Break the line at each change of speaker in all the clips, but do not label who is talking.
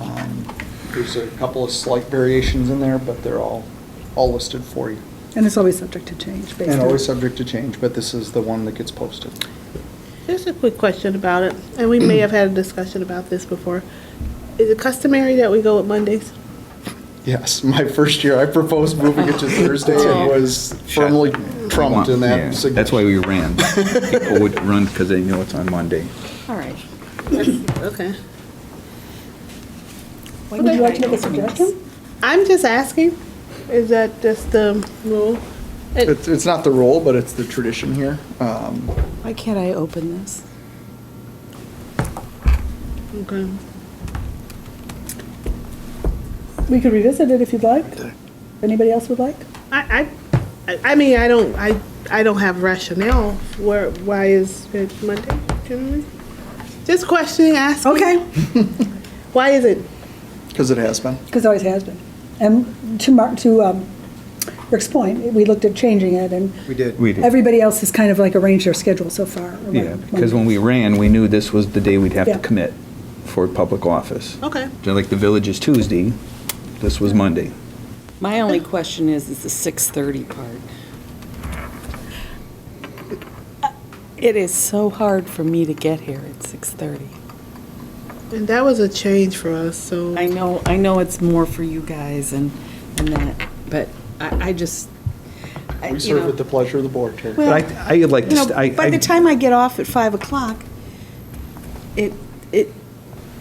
Um, There's a couple of slight variations in there, but they're all, all listed for you.
And it's always subject to change based on.
And always subject to change, but this is the one that gets posted.
Just a quick question about it, and we may have had a discussion about this before. Is it customary that we go with Mondays?
Yes, my first year, I proposed moving it to Thursday and was firmly trumped in
Yeah,
that. sig-
That's why we ran. People would run because they know it's on Monday.
All right.
Okay.
Would you like to make a suggestion?
I'm just asking, is that just the rule?
It's, it's not the rule, but it's the tradition here. Um,
Why can't I open this?
Okay.
We could revisit it if you'd like. Anybody else would like?
I, I, I- I mean, I don't, I, I don't have rationale where, why is it Monday generally? Just questioning, asking.
Okay.
Why is it?
because it has been.
Because it always has been. And to Mark, to um, Rick's point, we looked at changing it and
We did.
We did.
everybody else has kind of like arranged their schedule so far. around
Yeah, because when
Monday.
we ran, we knew this was the day we'd have
Yeah.
to commit for public office.
Okay.
Just Like the village is Tuesday, this was Monday.
My only question is, is the 6:30 part. Uh, It is so hard for me to get here at 6:30.
And that was a change for us, so.
I know, I know it's more for you guys and, and that, but I, I just,
We
I- Uh, you know.
serve at the pleasure of the board, Terry.
Well,
But I- I'd like to
you know,
st- I-
By
I-
the time I get off at 5 o'clock, it, it,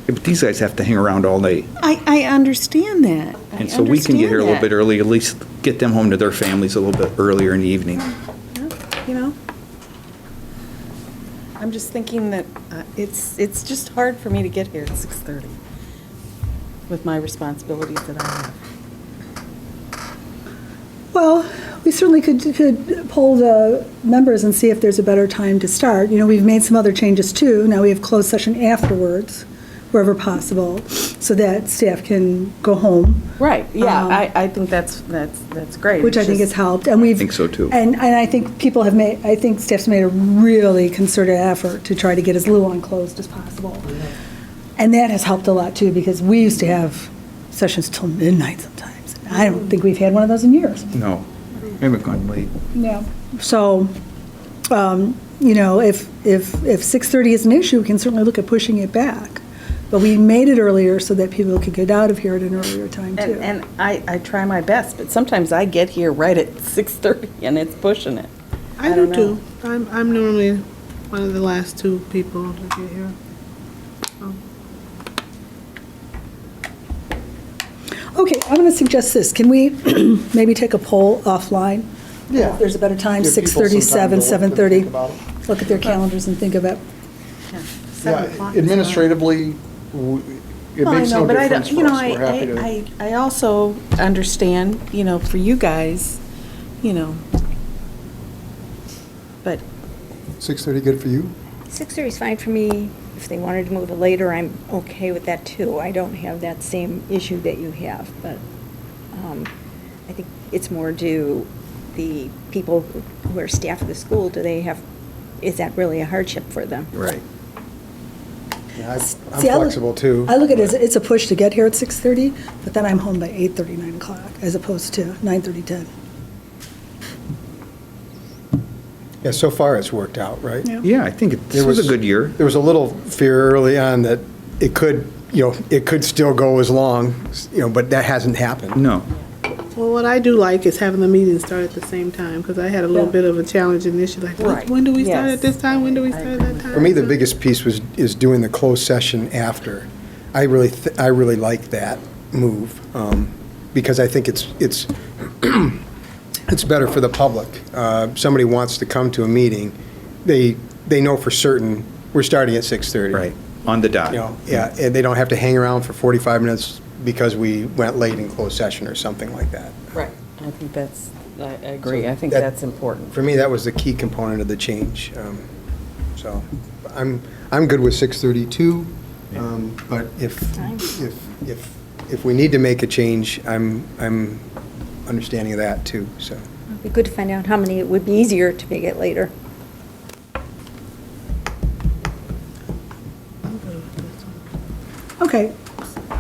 But these guys have to hang around all day.
I, I understand that. I
And so we can get here a little
understand
bit early, at least get them home to their families a little bit earlier in the evening.
that, You know? I'm just thinking that uh, it's, it's just hard for me to get here at 6:30 with my responsibilities that I have.
Well, we certainly could, could poll the members and see if there's a better time to start. You know, we've made some other changes too. Now we have closed session afterwards, wherever possible, so that staff can go home,
Right, yeah,
Um,
I, I think that's, that's, that's great.
which I think has
is
helped. And we've.
think so, too.
And, and I think people have made, I think staff's made a really concerted effort to try to get as little unclosed as possible. And that has helped a lot too, because we used to have sessions till midnight sometimes. I don't think we've had one of those in years.
No, we haven't gone late.
Yeah. So, um, you know, if, if, if 6:30 is an issue, we can certainly look at pushing it back. But we made it earlier so that people could get out of here at an earlier time,
And,
too.
and I, I try my best, but sometimes I get here right at 6:30 and it's pushing it.
I do
I don't
too. I'm, I'm normally one of the last two people to get here.
Okay, I'm going to suggest this. Can we maybe take a poll offline?
Yeah.
If there's a better time,
Give people some
6:30,
time to
7,
look and think
7:30.
about it.
Look at their calenders and think about,
Seven
Yeah,
o'clock is fine.
administratively, w- it
Well, I
makes
know,
no
but I
difference
don't-
for us. We're happy
You know,
to.
I- I, I, I also understand, you know, for you guys, you know, but
6:30 good for you?
Six thirty is fine for me. If they wanted to move it later, I'm okay with that too. I don't have that same issue that you have, but um, I think it's more do the people who are staff of the school, do they have, is that really a hardship for them?
Right.
Yeah, I- I'm
See, I look-
flexible too.
I look at it as, it's a push to get here at 6:30, but then I'm home by 8:30, 9 o'clock, as opposed to 9:30, 10.
Yeah, so far it's worked out, right?
Yeah, I think it- this
There
was a good year.
There was a little fear early on that it could, you know, it could still go as long, you know, but that hasn't happened.
No.
Well, what I do like is having the meetings start at the same time, because I had a little bit of a challenge initially, like,
Right.
when- when do we start at
Yes.
this time, when do we start at that time?
For me, the
So-
biggest piece was, is doing the closed session after. I really, th- I really like that move, um, because I think it's, it's, it's better for the public. Uh, Somebody wants to come to a meeting, they, they know for certain, we're starting at 6:30.
Right, on the dot.
You know, yeah, and they don't have to hang around for 45 minutes because we went late in closed session or something like that.
Right. I think that's, I I agree, I think
That-
that's important.
For me, that was the key component of the change. um, So I'm, I'm good with 6:32, um, but if, if, if, if we need to make a change, I'm, I'm understanding of that too, so.
It'd be good to find out how many it would be easier to make it later.
Okay,